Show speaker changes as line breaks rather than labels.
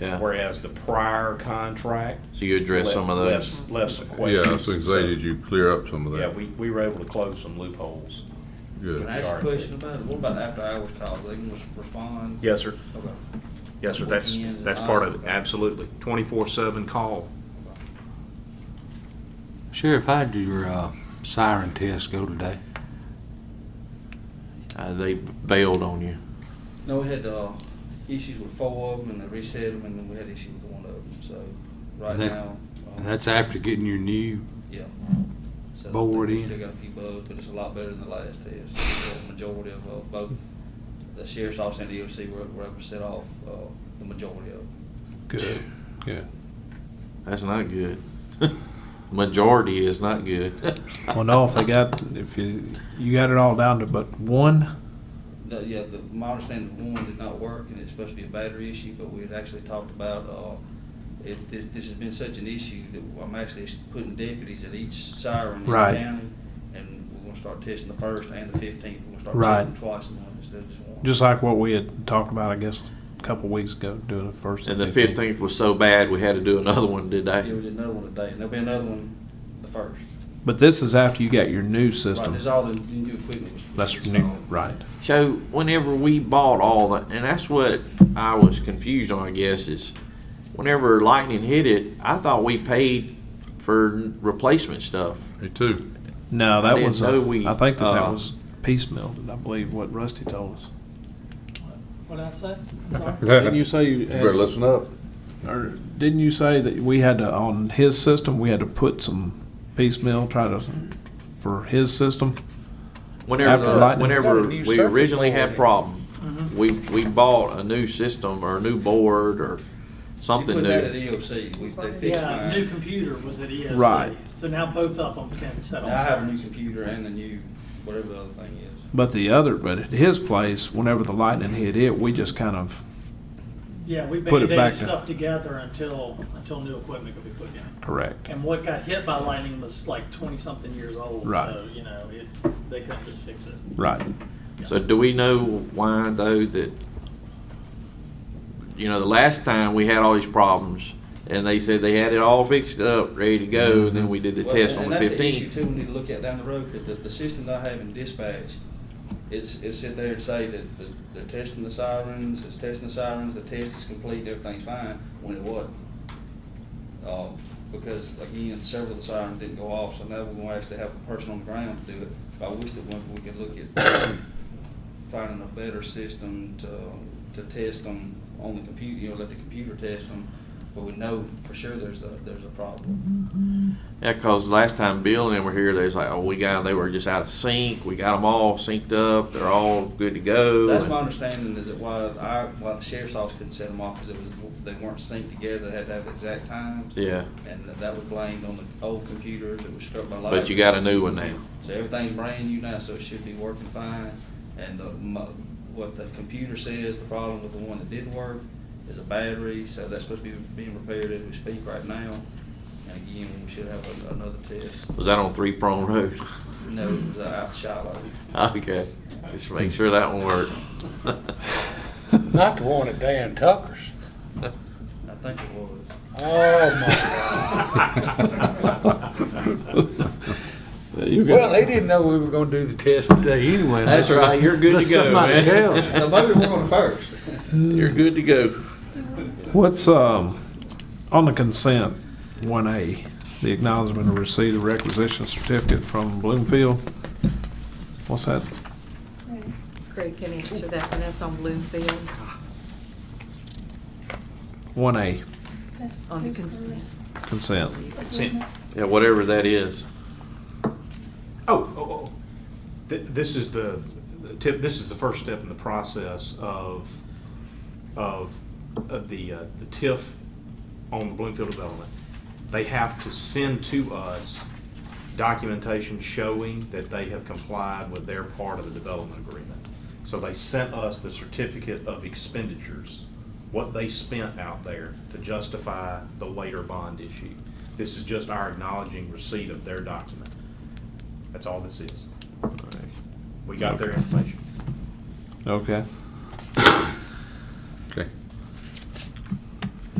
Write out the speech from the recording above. Yeah.
Whereas the prior contract.
So you address
le-
some of
left-
those.
Left some
Yeah,
questions.
I was gonna say, did you clear up some of
Yeah,
that?
we, we were able to close some loopholes.
Good.
Can I ask a question about it? What about after hours calls? They can just respond?
Yes, sir.
Okay.
Yes, sir. That's,
Weekends and
that's part
all.
of it. Absolutely. Twenty-four seven call.
Sheriff, how'd your uh, siren test go today?
Uh, they bailed on you.
No, we had, uh, issues with four of them and they reset them and then we had issues with one of them, so right
And that-
now. um,
And that's after getting your new.
Yeah. So I
Board
think we
in.
Still got a few bugs, but it's a lot better than the last test. The Majority of, uh, both the sheriff's office and the EOC were, were able to set off, uh, the majority of them.
Good, yeah.
That's not good. Majority is not good.
Well, no, if they got, if you, you got it all down to but one,
The, yeah, the, my understanding is one did not work, and it's supposed to be a battery issue, but we had actually talked about, uh, it, this, this has been such an issue that I'm actually putting deputies at each siren in the
Right.
county, and we're gonna start testing the first and the fifteenth, we're gonna
Right.
start testing twice a month instead of just one.
just like what we had talked about, I guess, a couple weeks ago, doing the first.
And the fifteenth was so bad, we had to do another one, did
Yeah, we
they?
did another one today, and there'll be another one the first.
But this is after you got your new
Right,
system.
this is all the new equipment was.
That's new, right.
So whenever we bought all that, and that's what I was confused on, I guess, is whenever lightning hit it, I thought we paid for replacement stuff.
Me too.
No,
I
that
didn't
was,
know
a-
we,
I think that
uh,
that was piecemealed, I believe, what Rusty told us.
What'd I say? I'm sorry.
Didn't you say you
You better
had,
listen up.
or didn't you say that we had to, on his system, we had to put some piecemeal, try to, for his system?
Whenever,
After
the-
lightning.
whenever
Got a new
we
circuit
originally had
board.
problem, we, we bought a new system or a new board or something
You put that at
new.
EOC, we, they fixed
Yeah, his new
mine.
computer was at ESC.
Right.
So now both of them can set
Now I
off.
have a new computer and the new, whatever the other thing is.
But the other, but at his place, whenever the lightning hit it, we just kind of
Yeah, we
Put it back
band-aided
to-
stuff together until, until new equipment could be put in.
correct.
And what got hit by lightning was like twenty-something years old.
Right.
So, you know, it, they couldn't just fix it.
Right.
So do we know why though that, you know, the last time we had all these problems and they said they had it all fixed up, ready to go, and then we did the
Well,
test
and-
on
and
the
that's the issue
fifteenth.
too, we need to look at down the road, because the, the system that I have in dispatch, it's, it's sit there and say that the- they're testing the sirens, it's testing the sirens, the test is complete, everything's fine, when it wasn't. Uh, because again, several of the sirens didn't go off, so now we're gonna actually have a person on the ground to do it. But I wish that one, we could look at finding a better system to, to test them on the computer, you know, let the computer test them, but we know for sure there's a, there's a problem.
Yeah, cause last time Bill and them were here, they was like, oh, we got, they were just out of sync, we got them all synced up, they're all good to go.
That's
and-
my understanding, is that why our, why the sheriff's office couldn't set them off, because it was, they weren't synced together, they had to have the exact times.
Yeah,
And that was blamed on the old computers that was struck by lightning.
but you got a new one now.
So everything's brand new now, so it should be working fine, and the, mo- what the computer says, the problem with the one that didn't work is a battery, so that's supposed to be being repaired as we speak right now. And again, we should have a- another test,
Was that on Three Prong Road?
no, it was out shallow.
Okay, just make sure that one worked.
Not the one at Dan Tucker's.
I think it was.
Oh, my. Well, they didn't know we were going to do the test today anyway.
That's
unless-
right, you're good to
unless
go, man.
Somebody tells.
So maybe we're going first.
You're good to go.
What's, um, on the consent, one A, the acknowledgement of receipt of requisition certificate from Bloomfield? What's that?
Craig can answer that, and that's on Bloomfield,
One A,
on the consent.
consent.
Yeah, whatever that is.
Oh, oh, oh. Th- This is the the tip, this is the first step in the process of, of, of the, uh, the TIF on the Bloomfield development. They have to send to us documentation showing that they have complied with their part of the development agreement. So they sent us the certificate of expenditures, what they spent out there to justify the later bond issue. This is just our acknowledging receipt of their document. That's all this is. We got their information.
Okay.